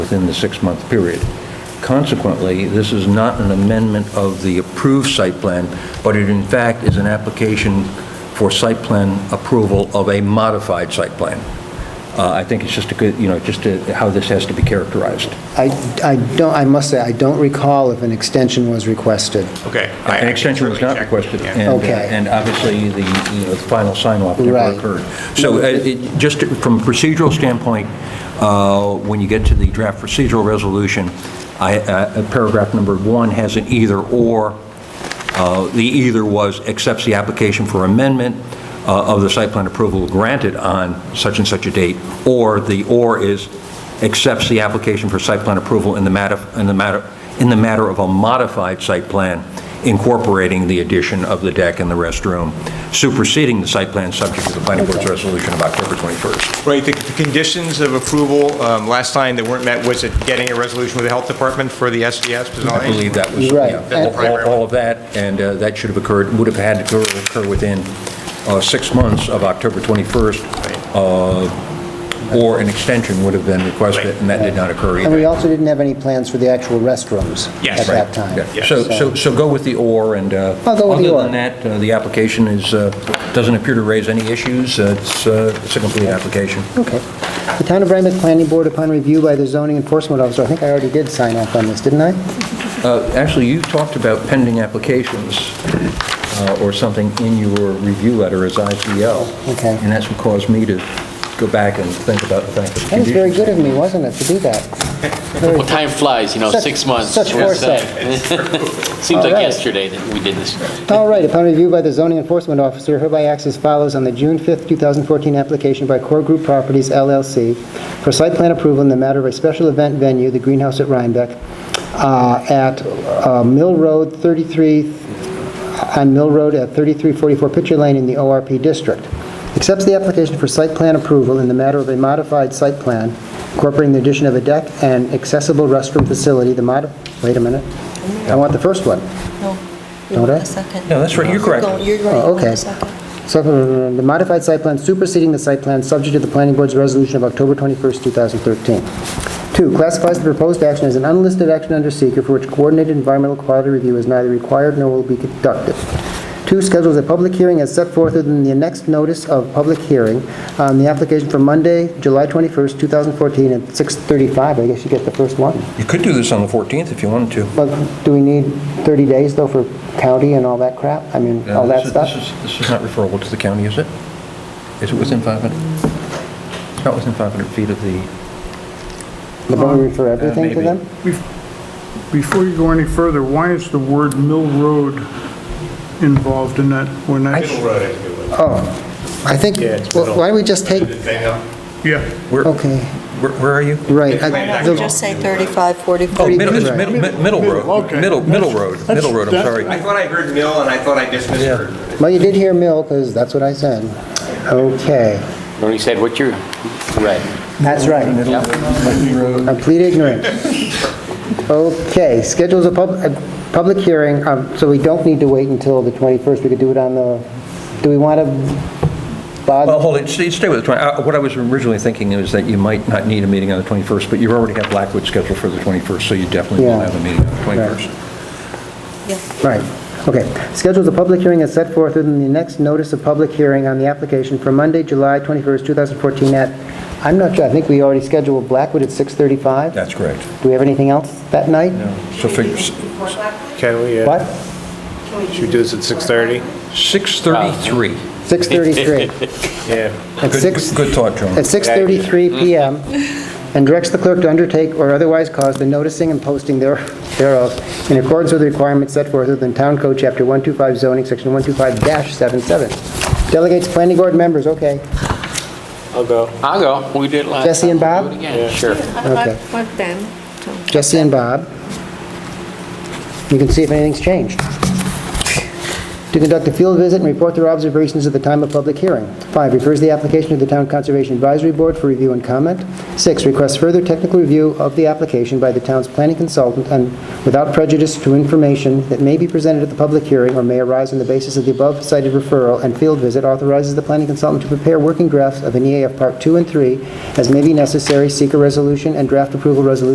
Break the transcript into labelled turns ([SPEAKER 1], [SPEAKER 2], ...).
[SPEAKER 1] within the six-month period. Consequently, this is not an amendment of the approved site plan, but it in fact is an application for site plan approval of a modified site plan. Uh, I think it's just a good, you know, just a- how this has to be characterized.
[SPEAKER 2] I, I don't, I must say, I don't recall if an extension was requested.
[SPEAKER 3] Okay. I-
[SPEAKER 1] An
[SPEAKER 3] I
[SPEAKER 1] extension was
[SPEAKER 3] certainly
[SPEAKER 1] not
[SPEAKER 3] checked,
[SPEAKER 1] requested,
[SPEAKER 3] yeah.
[SPEAKER 1] and, uh,
[SPEAKER 2] Okay.
[SPEAKER 1] and obviously, the, you know, the final sign-off never
[SPEAKER 2] Right.
[SPEAKER 1] occurred. So, uh, it- just from a procedural standpoint, uh, when you get to the draft procedural resolution, I, uh, paragraph number one has an either-or. Uh, The either was accepts the application for amendment uh, of the site plan approval granted on such and such a date, or the or is accepts the application for site plan approval in the matter, in the matter, in the matter of a modified site plan incorporating the addition of the deck and the restroom, superseding the site plan subject to the planning board's resolution of October 21st.
[SPEAKER 3] Right, the the conditions of approval, um, last time that weren't met, was it getting a resolution with the health department for the SDS design?
[SPEAKER 1] I believe that was,
[SPEAKER 2] Right.
[SPEAKER 1] yeah,
[SPEAKER 3] That's
[SPEAKER 1] all-
[SPEAKER 3] the primary
[SPEAKER 1] all all of that, and uh, that should have occurred, would have had to occur within uh, six months of October 21st, uh, or an extension would have been requested,
[SPEAKER 3] Right.
[SPEAKER 1] and that did not occur
[SPEAKER 2] And we
[SPEAKER 1] either.
[SPEAKER 2] also didn't have any plans for the actual restrooms
[SPEAKER 3] Yes.
[SPEAKER 2] at that
[SPEAKER 3] Right.
[SPEAKER 2] time.
[SPEAKER 1] Yeah. So, so so go with the or, and uh,
[SPEAKER 2] I'll go with the or.
[SPEAKER 1] other than that, uh, the application is, uh, doesn't appear to raise any issues. Uh, It's uh, it's a complete application.
[SPEAKER 2] Okay. The Town of Rhinebeck Planning Board, upon review by the zoning enforcement officer, I think I already did sign off on this, didn't I?
[SPEAKER 1] Uh, Actually, you talked about pending applications uh, or something in your review letter as IPL.
[SPEAKER 2] Okay.
[SPEAKER 1] And that's what caused me to go back and think about the fact that.
[SPEAKER 2] That was very good of me, wasn't it, to do that? Very
[SPEAKER 4] Well, time flies, you know,
[SPEAKER 2] Such-
[SPEAKER 4] six months.
[SPEAKER 2] such
[SPEAKER 4] what's that? Seems
[SPEAKER 2] All
[SPEAKER 4] like
[SPEAKER 2] right.
[SPEAKER 4] yesterday that we did this.
[SPEAKER 2] All right, upon review by the zoning enforcement officer, hereby acts as follows on the June 5th, 2014 application by Core Group Properties LLC for site plan approval in the matter of a special event venue, the Greenhouse at Rhinebeck, uh, at uh, Mill Road 33, on Mill Road at 3344 Pitcher Lane in the ORP District. Accepts the application for site plan approval in the matter of a modified site plan incorporating the addition of a deck and accessible restroom facility, the mod, wait a minute, I want the first one.
[SPEAKER 5] No, you
[SPEAKER 2] Don't
[SPEAKER 5] want
[SPEAKER 2] I?
[SPEAKER 5] the second.
[SPEAKER 1] No, that's right, you're correct.
[SPEAKER 5] going- You're right,
[SPEAKER 2] Oh,
[SPEAKER 5] you want
[SPEAKER 2] okay.
[SPEAKER 5] the second.
[SPEAKER 2] So uh, the modified site plan superseding the site plan subject to the planning board's resolution of October 21st, 2013. Two, classifies the proposed action as an unlisted action under seeker for which coordinated environmental quality review is neither required nor will be conducted. Two, schedules a public hearing as set forth within the next notice of public hearing on the application for Monday, July 21st, 2014 at 6:35. I guess you get the first one.
[SPEAKER 1] You could do this on the 14th if you wanted to.
[SPEAKER 2] But do we need 30 days though for county and all that crap? I mean, all
[SPEAKER 1] This
[SPEAKER 2] that
[SPEAKER 1] is-
[SPEAKER 2] stuff?
[SPEAKER 1] This is, this is not referable to the county, is it? Is it within 500? It's not within 500 feet of the,
[SPEAKER 2] The board refer everything to
[SPEAKER 1] maybe.
[SPEAKER 2] them?
[SPEAKER 6] Before you go any further, why is the word Mill Road involved in that? When that,
[SPEAKER 3] Middle road, I think it was.
[SPEAKER 2] Oh, I think,
[SPEAKER 3] Yeah, it's
[SPEAKER 2] well,
[SPEAKER 3] middle.
[SPEAKER 2] why don't we just take,
[SPEAKER 3] The thing up.
[SPEAKER 6] yeah,
[SPEAKER 1] where,
[SPEAKER 2] okay,
[SPEAKER 1] where where are you?
[SPEAKER 2] right.
[SPEAKER 5] Why
[SPEAKER 2] I-
[SPEAKER 5] not
[SPEAKER 2] the-
[SPEAKER 5] just say 35,
[SPEAKER 1] Oh,
[SPEAKER 5] 45?
[SPEAKER 1] middle, it's
[SPEAKER 2] Right.
[SPEAKER 1] middle, mid- middle road,
[SPEAKER 6] okay.
[SPEAKER 1] middle, middle road, middle road, I'm
[SPEAKER 6] That's-
[SPEAKER 1] sorry.
[SPEAKER 3] I thought I heard mill, and I thought I dismissed
[SPEAKER 1] Yeah.
[SPEAKER 3] her.
[SPEAKER 2] Well, you did hear mill, because that's what I said. Okay,
[SPEAKER 4] When he said what you're, right.
[SPEAKER 2] that's right.
[SPEAKER 1] Middle road.
[SPEAKER 2] I'm complete ignorant. Okay, schedules a pub, a public hearing, um, so we don't need to wait until the 21st. We could do it on the, do we want to
[SPEAKER 1] Well,
[SPEAKER 2] bother?
[SPEAKER 1] hold it, stay stay with the 20, uh, what I was originally thinking is that you might not need a meeting on the 21st, but you already have Blackwood scheduled for the 21st, so you definitely will
[SPEAKER 2] Yeah.
[SPEAKER 1] have a meeting on the 21st.
[SPEAKER 2] Right, okay. Schedules a public hearing as set forth within the next notice of public hearing on the application for Monday, July 21st, 2014 at, I'm not sure, I think we already scheduled Blackwood at 6:35?
[SPEAKER 1] That's correct.
[SPEAKER 2] Do we have anything else that night?
[SPEAKER 1] So figure, s-
[SPEAKER 3] Can we,
[SPEAKER 2] What?
[SPEAKER 3] should we do this at 6:30?
[SPEAKER 1] 6:33.
[SPEAKER 2] Uh, 6:33.
[SPEAKER 3] Yeah.
[SPEAKER 2] At
[SPEAKER 1] Good-
[SPEAKER 2] 6,
[SPEAKER 1] Good thought, Joan.
[SPEAKER 2] at 6:33 PM, and directs the clerk to undertake or otherwise cause the noticing and posting there- thereof in accordance with the requirements set forth within Town Code Chapter 125 zoning, Section 125-77. Delegates planning board members, okay.
[SPEAKER 3] I'll go.
[SPEAKER 4] I'll go. We did it last.
[SPEAKER 2] Jesse and
[SPEAKER 4] time. We'll
[SPEAKER 2] Bob?
[SPEAKER 4] do it again. Sure.
[SPEAKER 2] Okay.
[SPEAKER 7] What then?
[SPEAKER 2] Jesse and Bob. You can see if anything's changed. To conduct a field visit and report their observations at the time of public hearing. Five, refers the application to the Town Conservation Advisory Board for review and comment. Six, requests further technical review of the application by the town's planning consultant and without prejudice to information that may be presented at the public hearing or may arise on the basis of the above cited referral and field visit authorizes the planning consultant to prepare E working drafts of an EAF Part 2 and 3 as may be necessary, seek a resolution and draft approval resolution